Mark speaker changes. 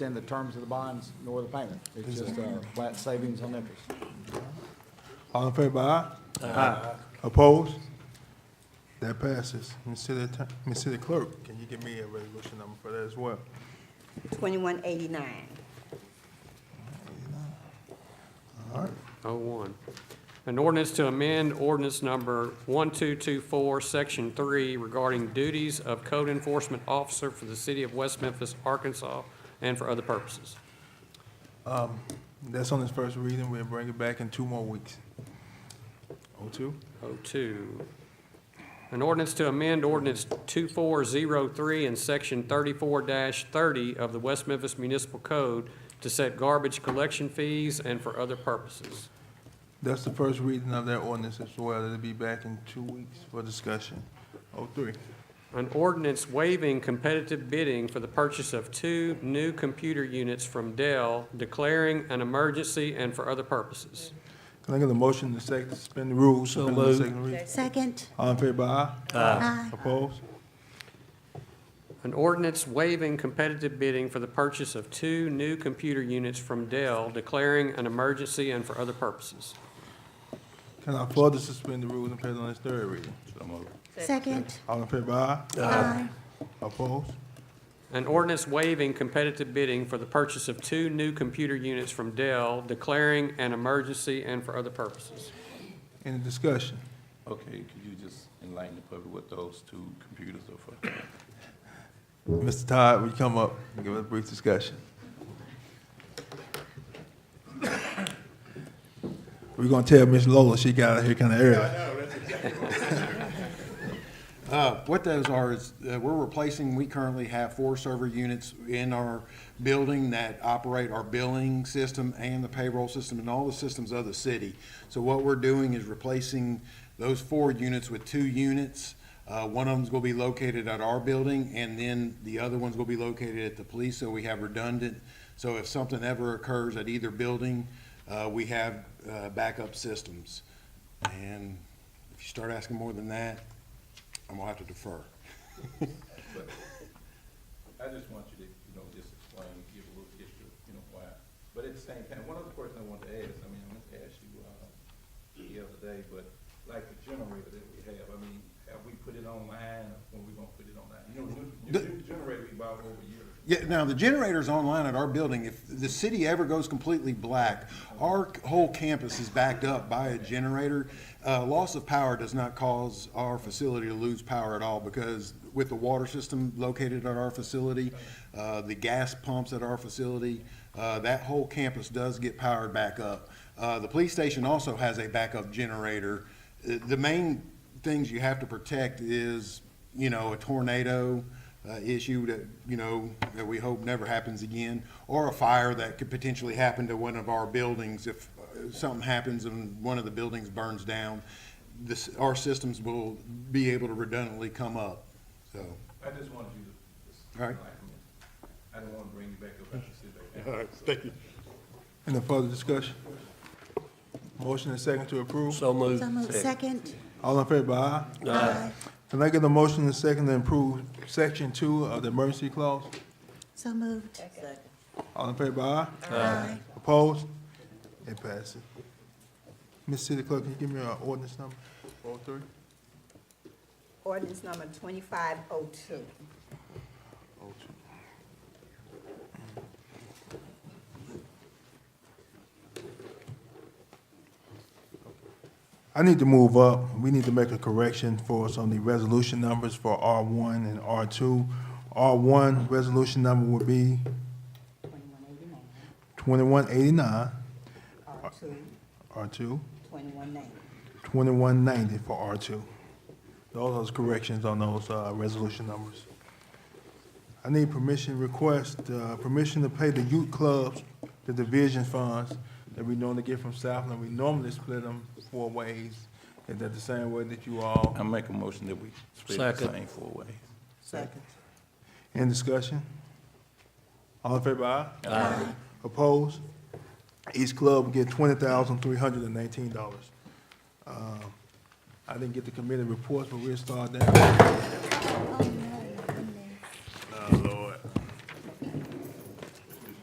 Speaker 1: extend the terms of the bonds nor the payment. It's just a flat savings on interest.
Speaker 2: All in favor, aye? Aye. Opposed? That passes. Ms. City Atten- Ms. City Clerk, can you give me a resolution number for that as well?
Speaker 3: 2189.
Speaker 2: All right,
Speaker 4: Oh, one. An ordinance to amend ordinance number 1224, Section 3, regarding duties of code enforcement officer for the city of West Memphis, Arkansas, and for other purposes.
Speaker 2: that's on its first reading. We'll bring it back in two more weeks. O Oh, two?
Speaker 4: 02. Oh, An ordinance to amend ordinance 2403 and section 34-30 of the West Memphis Municipal Code to set garbage collection fees and for other purposes.
Speaker 2: That's the first reading of that ordinance as well. It'll be back in two weeks for discussion. O three?
Speaker 4: An ordinance waiving competitive bidding for the purchase of two new computer units from Dell, declaring an emergency and for other purposes.
Speaker 2: Can I get a motion to second, suspend the rules? So moved.
Speaker 3: Second.
Speaker 2: All in favor, aye?
Speaker 3: Aye.
Speaker 2: Opposed?
Speaker 4: An ordinance waiving competitive bidding for the purchase of two new computer units from Dell, declaring an emergency and for other purposes.
Speaker 2: Can I further suspend the rules and pass on its third reading?
Speaker 3: Second.
Speaker 2: All in favor, aye?
Speaker 3: Aye.
Speaker 2: Opposed?
Speaker 4: An ordinance waiving competitive bidding for the purchase of two new computer units from Dell, declaring an emergency and for other purposes.
Speaker 2: Any discussion?
Speaker 5: Okay, could you just enlighten the public what those two computers are for?
Speaker 2: Mr. Todd, would you come up and give us a brief discussion? We're gonna tell Miss Lola she got out here kinda early.
Speaker 6: Uh, What those are is, uh, we're replacing, we currently have four server units in our building that operate our billing system and the payroll system and all the systems of the city. So what we're doing is replacing those four units with two units. Uh, One of them's going to be located at our building, and then the other one's going to be located at the police, so we have redundant. So if something ever occurs at either building, uh, we have uh, backup systems. And if you start asking more than that, I'm gonna have to defer.
Speaker 5: I just want you to, you know, just explain, give a little history, you know, why. But at the same time, one other question I want to ask, I mean, I meant to ask you, uh, the other day, but like the generator that we have, I mean, have we put it online, or when we gonna put it online? You know, the new, new generator we bought over a year ago.
Speaker 6: Yeah, now the generator's online at our building. If the city ever goes completely black, our whole campus is backed up by a generator. Uh, loss of power does not cause our facility to lose power at all because with the water system located at our facility, uh, the gas pumps at our facility, uh, that whole campus does get powered back up. Uh, the police station also has a backup generator. Uh, The main things you have to protect is, you know, a tornado, uh, issue that, you know, that we hope never happens again, or a fire that could potentially happen to one of our buildings if uh, something happens and one of the buildings burns down. This, our systems will be able to redundantly come up, so.
Speaker 5: I just wanted you to, just
Speaker 6: All right.
Speaker 5: enlighten me. I don't wanna bring you back up, I should sit back down.
Speaker 6: thank you.
Speaker 2: Any further discussion? Motion and second to approve.
Speaker 7: So moved.
Speaker 3: So moved. Second.
Speaker 2: All in favor, aye?
Speaker 3: Aye.
Speaker 2: Can I get a motion and second to approve section two of the emergency clause?
Speaker 3: So moved.
Speaker 2: All in favor, aye?
Speaker 3: Aye.
Speaker 2: Opposed? It passes. Miss City Clerk, can you give me an ordinance number? O three?
Speaker 3: Ordinance number 2502.
Speaker 2: I need to move up. We need to make a correction for some of the resolution numbers for R one and R two. R one resolution number would be
Speaker 3: 2189.
Speaker 2: twenty-one eighty-nine,
Speaker 3: R2,
Speaker 2: R 2
Speaker 3: 2190.
Speaker 2: 2190 for R two. All those corrections on those, uh, resolution numbers. I need permission, request, uh, permission to pay the youth clubs, the division funds that we normally get from Southland. We normally split them four ways. Is that the same way that you all?
Speaker 5: I make a motion that we split the
Speaker 7: Second.
Speaker 5: same four ways.
Speaker 3: Second.
Speaker 2: In discussion? All in favor, aye? Aye. Opposed? Each club will get twenty thousand three hundred and nineteen dollars. Uh, I didn't get the committee reports, but we'll start that.
Speaker 3: Oh,